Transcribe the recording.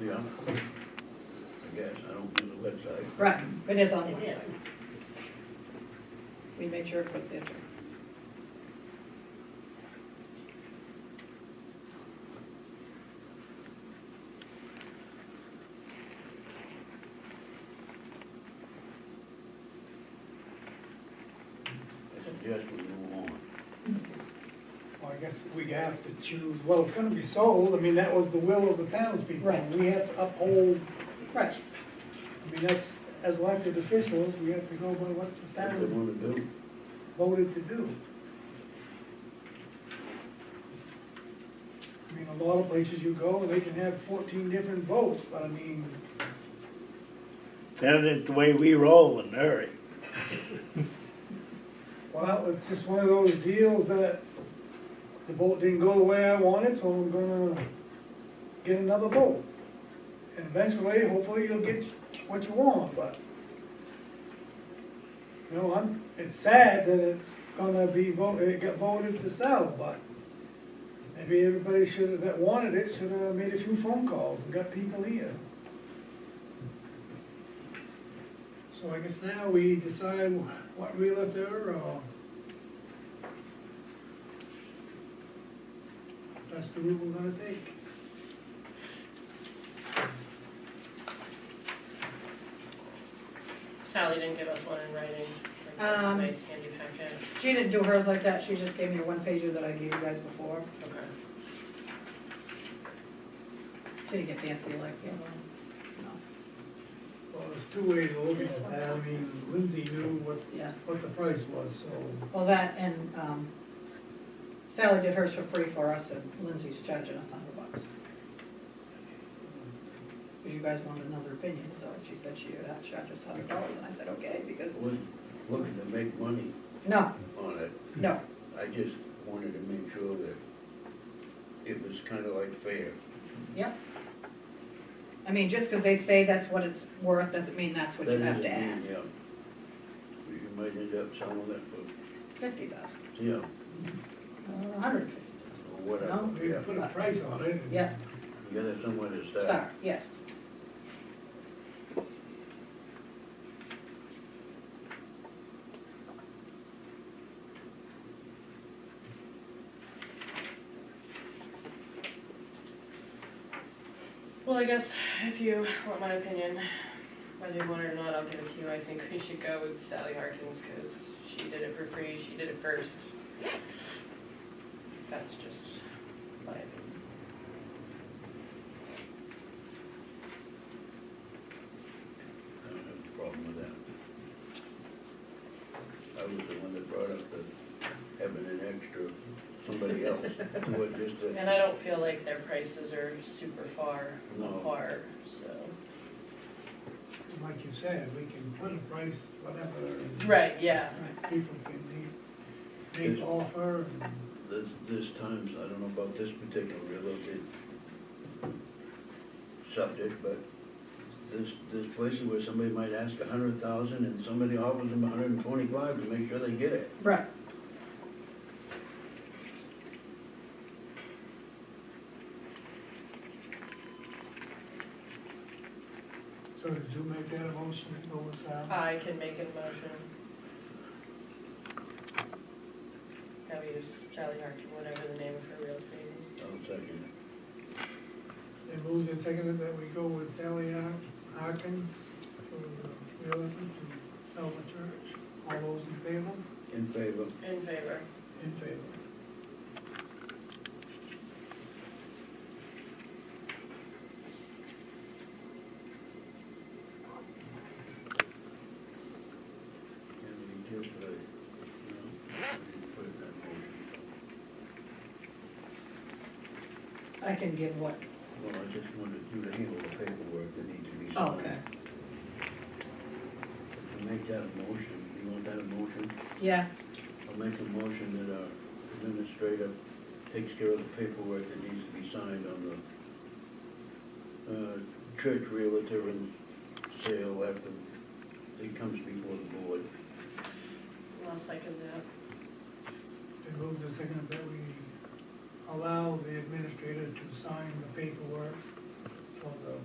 Yeah. I guess, I don't do the website. Right, it is on the It is. website. We made sure to put the address. I suggest we move on. Mm-hmm. Well, I guess we have to choose, well, it's gonna be sold, I mean, that was the will of the townspeople. Right. We have to uphold, Right, I mean, that's, as elected officials, we have to go by what the What they town wanna do, voted to do. I mean, a lot of places you go, they can have fourteen different votes, but I mean, That is the way we roll in a hurry. well, it's just one of those deals that the vote didn't go the way I wanted, so I'm gonna get another vote. And eventually, hopefully, you'll get what you want, but. You know, I'm, it's sad that it's gonna be voted, it got voted to sell, but maybe everybody should have, that wanted it, should have made a few phone calls and got people here. So I guess now we decide what realtor or. That's the route we're gonna take. Sally didn't give us one in writing, like, Um, nice handy packet, she didn't do hers like that, she just gave me a one pager that I gave you guys before. okay. She didn't get fancy like the other one. Well, there's two ways to look at that, I mean, Lindsay knew what, No, yeah, what the price was, so, well, that and, um, Sally did hers for free for us and Lindsay's charging us a hundred bucks. Cause you guys wanted another opinion, so she said she would have to charge us a hundred dollars and I said, okay, because, I wasn't looking to make money no, on it, no, I just wanted to make sure that it was kinda like fair. yep. I mean, just cause they say that's what it's worth, doesn't mean that's what you That have is to a thing, ask. yeah. um, You might end up selling it for, Fifty thousand, yeah, a hundred and fifty, or whatever, No, we yeah, put a price on it. and- yeah, you gotta somewhere to start. start, yes. Well, I guess if you want my opinion, whether you want it or not, I'll give it to you. I think we should go with Sally Harkins because she did it for free, she did it first. That's just my opinion. I don't have a problem with that. I was the one that brought up the, having an extra, somebody else, do it just to And I don't feel like their prices are super far No. apart, so. Like you said, we can put a price, whatever, and Right, yeah. people can make, make offer, and This, this times, I don't know about this particular relocated subject, but this, this places where somebody might ask a hundred thousand and somebody offers them a hundred and twenty-five to make sure they get it. Right. so did you make that a motion to go with that? I can make a motion. Have you, Sally Harkins, whatever the name of her real estate is. I'll second They moved and seconded that we go with Sally Har- Harkins for the realtor to sell the church. All those in favor? it. In favor? In favor. In favor. And we give the, no, we put it in that motion. I can give what, Well, I just wanted you to handle the paperwork that needs to be oh, signed. okay, To make that a motion, you want that a motion? yeah, I'll make a motion that our administrator takes care of the paperwork that needs to be signed on the, uh, church realtor and sale after it comes before the board. I'll second that. They moved and seconded that we allow the administrator to sign the paperwork for the